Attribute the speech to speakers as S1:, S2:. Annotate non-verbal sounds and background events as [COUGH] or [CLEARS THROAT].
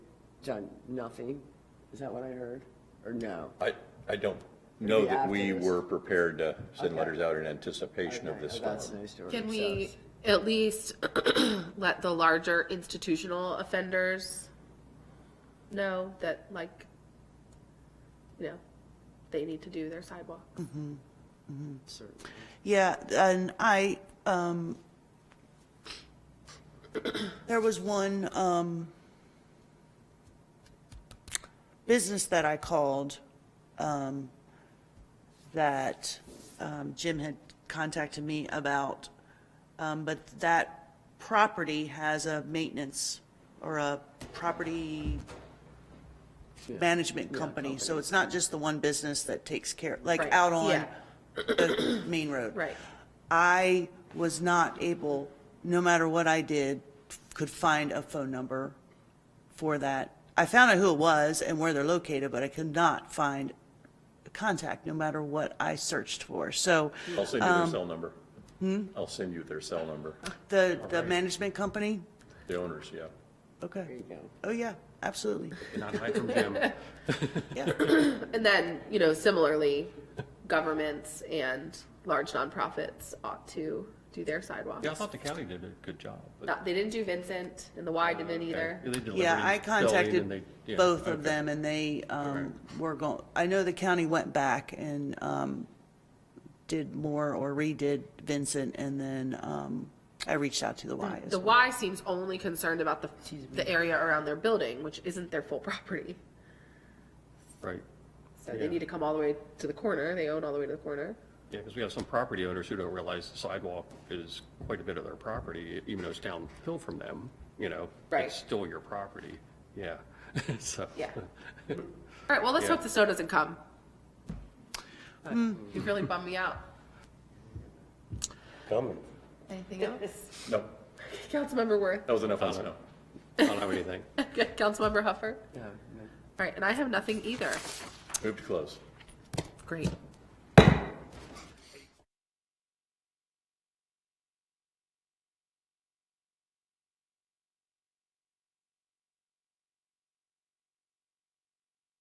S1: done nothing? Is that what I heard? Or no?
S2: I, I don't know that we
S1: afterwards.
S2: were prepared to send
S1: Okay.
S2: letters out in anticipation of
S1: Okay,
S2: this
S1: oh,
S2: storm.
S1: That's nice to hear.
S3: Can
S1: So
S3: we
S1: it's-
S3: at least [CLEARS THROAT] let the larger institutional offenders know that like, you know, they need to do their sidewalk?
S1: certainly.
S4: Yeah, and I, um, there was one, um, business that I called, um, that, um, Jim had contacted me about. Um, but that property has a maintenance or a property management company. So it's not just the one business that takes care, like
S3: Right,
S4: out on
S3: yeah.
S4: the main road.
S3: Right.
S4: I was not able, no matter what I did, could find a phone number for that. I found out who it was and where they're located, but I could not find a contact, no matter what I searched for. So
S2: I'll send you their
S4: Um,
S2: cell number.
S4: hmm?
S2: I'll send you their cell number,
S4: the, the management company,
S2: the owners, yeah.
S1: There
S4: okay.
S1: you go.
S4: Oh, yeah, absolutely.
S5: Not hide from Jim.
S4: [LAUGHS] Yeah.
S3: And then, you know, similarly, governments and large nonprofits ought to do their sidewalks.
S5: Yeah, I thought the county did a good job. but-
S3: Not- They didn't do Vincent and the Y didn't either.
S5: Uh, Okay. They delivered
S4: Yeah,
S5: in
S4: I
S5: Philly and
S4: contacted
S5: they- yeah,
S4: both of
S5: okay.
S4: them and they, um, were going, I know the county went back and, um, did more or redid Vincent and then, um, I reached out to the Y as
S3: The
S4: well.
S3: Y seems only concerned about the, the area around their building, which isn't their full [LAUGHS] property.
S5: Right.
S3: So they
S5: Yeah.
S3: need to come all the way to the corner. They own all the way to the corner.
S5: Yeah, because we have some property owners who don't realize the sidewalk is quite a bit of their property, even though it's downhill from them, you know?
S3: Right.
S5: It's still your property, yeah, [LAUGHS] so.
S3: Yeah. All right, well, let's
S5: Yeah.
S3: hope the snow doesn't come. Mm. You really bummed me out.
S2: Coming.
S3: [LAUGHS] Anything else?
S2: No,
S3: Councilmember Worth,
S2: that was enough on snow.
S5: I don't have anything.
S3: [LAUGHS] Councilmember Huffer. All
S1: Yeah, no.
S3: right, and I have nothing either.
S2: Move to close.
S3: Great.